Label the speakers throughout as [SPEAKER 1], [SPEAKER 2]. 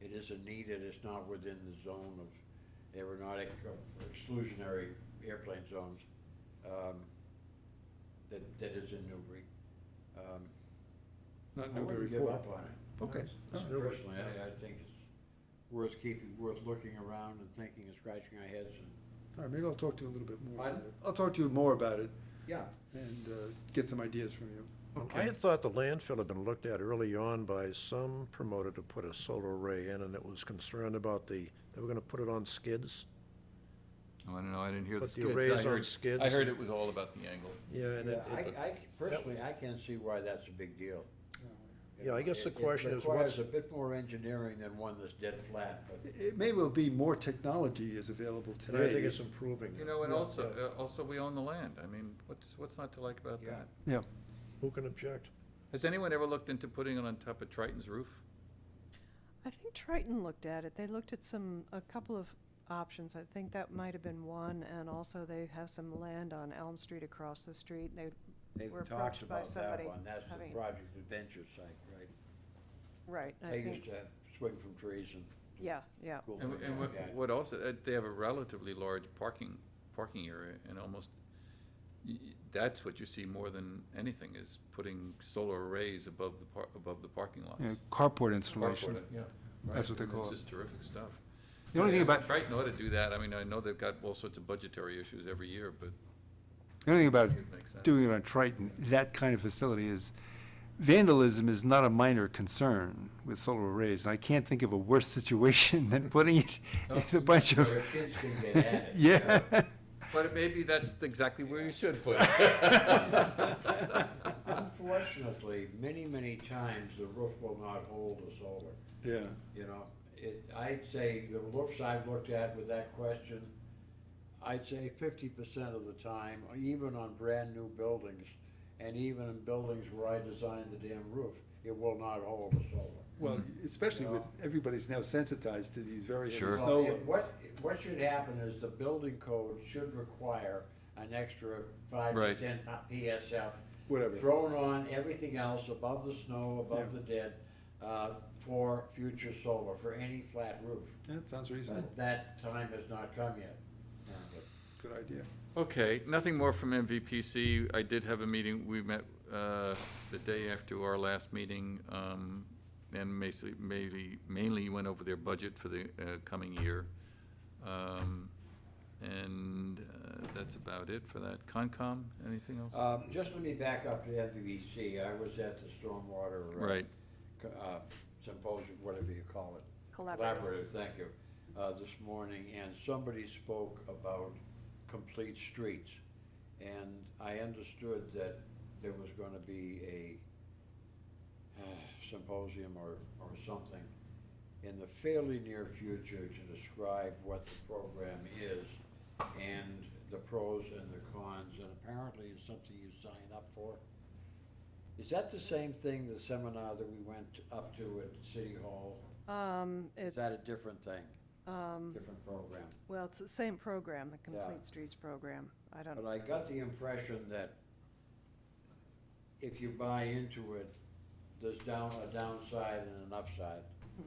[SPEAKER 1] It isn't needed, it's not within the zone of aeronautic uh, exclusionary airplane zones, um, that, that is in Newbury. Um,
[SPEAKER 2] Not
[SPEAKER 1] I
[SPEAKER 2] Newbury
[SPEAKER 1] wouldn't give
[SPEAKER 2] Port.
[SPEAKER 1] up on it. Uh,
[SPEAKER 2] Okay. all right.
[SPEAKER 1] Personally, I, I think it's worth keeping, worth looking around and thinking and scratching our heads and.
[SPEAKER 2] All right, maybe I'll talk to you a little bit more.
[SPEAKER 1] Pardon?
[SPEAKER 2] about it. I'll talk to you more about it
[SPEAKER 1] Yeah.
[SPEAKER 2] and uh, get some ideas from you.
[SPEAKER 3] I had thought the landfill had been looked at early on by some promoter to put a solar array in, and it was concerned about the, they were gonna put it on skids.
[SPEAKER 4] Oh, I don't know, I didn't hear the
[SPEAKER 3] But the
[SPEAKER 4] skids.
[SPEAKER 3] arrays
[SPEAKER 4] I
[SPEAKER 3] on
[SPEAKER 4] heard-
[SPEAKER 3] skids
[SPEAKER 4] I
[SPEAKER 3] and-
[SPEAKER 4] heard it was all about the angle.
[SPEAKER 3] Yeah, and
[SPEAKER 1] Yeah,
[SPEAKER 3] it, it-
[SPEAKER 1] I, I, personally, I can't see why that's a big deal.
[SPEAKER 3] Yeah, I guess the
[SPEAKER 1] It-
[SPEAKER 3] question is
[SPEAKER 1] It requires
[SPEAKER 3] what's-
[SPEAKER 1] a bit more engineering than one that's dead flat, but.
[SPEAKER 2] It- It may well be more technology is available
[SPEAKER 3] and I
[SPEAKER 2] today.
[SPEAKER 3] think it's improving.
[SPEAKER 4] You know, and
[SPEAKER 2] Yeah,
[SPEAKER 4] also, uh, also we own the land. I mean, what's, what's not to like about
[SPEAKER 1] Yeah.
[SPEAKER 4] that?
[SPEAKER 2] Yeah,
[SPEAKER 3] Who can object?
[SPEAKER 4] Has anyone ever looked into putting it on top of Triton's roof?
[SPEAKER 5] I think Triton looked at it. They looked at some, a couple of options. I think that might have been one, and also they have some land on Elm Street across the street. They
[SPEAKER 1] They've
[SPEAKER 5] were
[SPEAKER 1] talked
[SPEAKER 5] approached by
[SPEAKER 1] about that
[SPEAKER 5] somebody
[SPEAKER 1] one, that's the
[SPEAKER 5] having-
[SPEAKER 1] Project Adventure site, right?
[SPEAKER 5] Right, I
[SPEAKER 1] They used
[SPEAKER 5] think,
[SPEAKER 1] to swing from trees and. do
[SPEAKER 5] yeah, yeah.
[SPEAKER 1] cool
[SPEAKER 4] And,
[SPEAKER 1] things like
[SPEAKER 4] and what-
[SPEAKER 1] that.
[SPEAKER 4] what also, uh, they have a relatively large parking, parking area and almost, y- y- that's what you see more than anything is putting solar arrays above the par, above the parking lots.
[SPEAKER 2] carport
[SPEAKER 4] Carport, yeah.
[SPEAKER 2] That's what they
[SPEAKER 4] Right,
[SPEAKER 2] call it.
[SPEAKER 4] It's just terrific stuff.
[SPEAKER 2] The only thing
[SPEAKER 4] And
[SPEAKER 2] about-
[SPEAKER 4] Triton ought to do that. I mean, I know they've got all sorts of budgetary issues every year, but
[SPEAKER 6] The only thing about
[SPEAKER 4] it makes sense.
[SPEAKER 6] doing it on Triton, that kind of facility is vandalism is not a minor concern with solar arrays. And I can't think of a worse situation than putting it in a bunch of,
[SPEAKER 1] Where kids can get at it.
[SPEAKER 6] yeah.
[SPEAKER 4] But maybe that's exactly where you should put it.
[SPEAKER 1] Unfortunately, many, many times the roof will not hold the solar,
[SPEAKER 2] Yeah,
[SPEAKER 1] you know? It, I'd say, the roofs I've looked at with that question, I'd say fifty percent of the time, even on brand-new buildings, and even in buildings where I designed the damn roof, it will not hold the solar.
[SPEAKER 2] well, especially with, everybody's now sensitized to these very heavy
[SPEAKER 4] Sure.
[SPEAKER 2] snow
[SPEAKER 1] Well, it-
[SPEAKER 2] loads.
[SPEAKER 1] What, what should happen is the building code should require an extra five to
[SPEAKER 4] Right.
[SPEAKER 1] ten p- PSF.
[SPEAKER 2] Whatever.
[SPEAKER 1] Thrown on everything else above the snow, above the
[SPEAKER 2] Yeah.
[SPEAKER 1] dead, uh, for future solar, for any flat roof.
[SPEAKER 2] That sounds reasonable,
[SPEAKER 1] But that time has not come yet.
[SPEAKER 2] good idea.
[SPEAKER 4] Okay, nothing more from MVPC. I did have a meeting, we met uh, the day after our last meeting, um, and basically, mainly, mainly went over their budget for the uh, coming year. Um, And uh, that's about it for that. Concom, anything else?
[SPEAKER 1] Um, just let me back up to MVVC. I was at the stormwater. uh,
[SPEAKER 4] Right.
[SPEAKER 1] co- uh, symposium, whatever you call it.
[SPEAKER 5] Collaborative.
[SPEAKER 1] thank you, uh, this morning, and somebody spoke about complete streets. And I understood that there was gonna be a uh, symposium or, or something in the fairly near future to describe what the program is and the pros and the cons, and apparently it's something you sign up for. Is that the same thing, the seminar that we went up to at City Hall?
[SPEAKER 5] Um,
[SPEAKER 1] Is that
[SPEAKER 5] it's, um,
[SPEAKER 1] a different thing? Different program?
[SPEAKER 5] well, it's the same program, the
[SPEAKER 1] Yeah.
[SPEAKER 5] Complete Streets program. I don't,
[SPEAKER 1] But I got the impression that if you buy into it, there's down, a downside and an upside.
[SPEAKER 5] Hmm.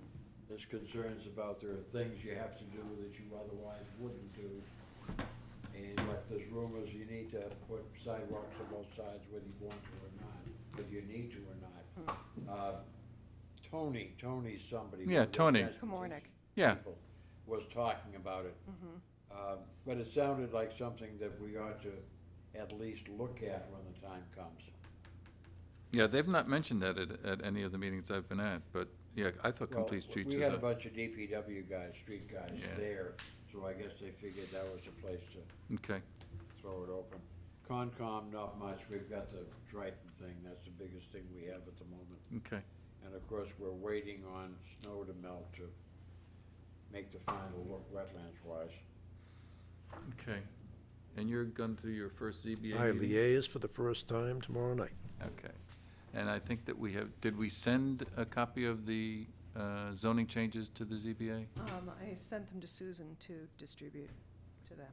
[SPEAKER 1] There's concerns about there are things you have to do that you otherwise wouldn't do. And like there's rumors you need to put sidewalks on both sides whether you want to or not, whether you need to or
[SPEAKER 5] Hmm.
[SPEAKER 1] not. Uh, Tony, Tony somebody.
[SPEAKER 4] Yeah,
[SPEAKER 1] one of the
[SPEAKER 4] Tony.
[SPEAKER 1] transportation
[SPEAKER 5] Kamornik.
[SPEAKER 4] Yeah.
[SPEAKER 1] people, Was talking about it. Uh, But it sounded like something that we ought to at least look at when the time comes.
[SPEAKER 4] Yeah, they've not mentioned that at, at any of the meetings I've been at, but, yeah, I thought
[SPEAKER 1] Well,
[SPEAKER 4] Complete Streets
[SPEAKER 1] We
[SPEAKER 4] was
[SPEAKER 1] had a
[SPEAKER 4] a,
[SPEAKER 1] bunch of DPW guys, street guys
[SPEAKER 4] Yeah.
[SPEAKER 1] there, so I guess they figured that was a place to
[SPEAKER 4] okay.
[SPEAKER 1] throw it open. Concom, not much, we've got the Triton thing, that's the biggest thing we have at the moment.
[SPEAKER 4] Okay,
[SPEAKER 1] And of course, we're waiting on snow to melt to make the final look wetlands wise.
[SPEAKER 4] okay. And you're going to your first ZBA meeting?
[SPEAKER 3] I liaise for the first time tomorrow night.
[SPEAKER 4] Okay. And I think that we have, did we send a copy of the uh, zoning changes to the ZBA?
[SPEAKER 5] um, I sent them to Susan to distribute to them.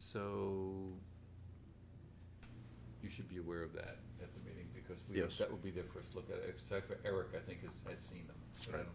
[SPEAKER 4] So you should be aware of that at the meeting because we,
[SPEAKER 3] Yes.
[SPEAKER 4] that will be their first look at it, except for Eric, I think, has, has seen them. but I don't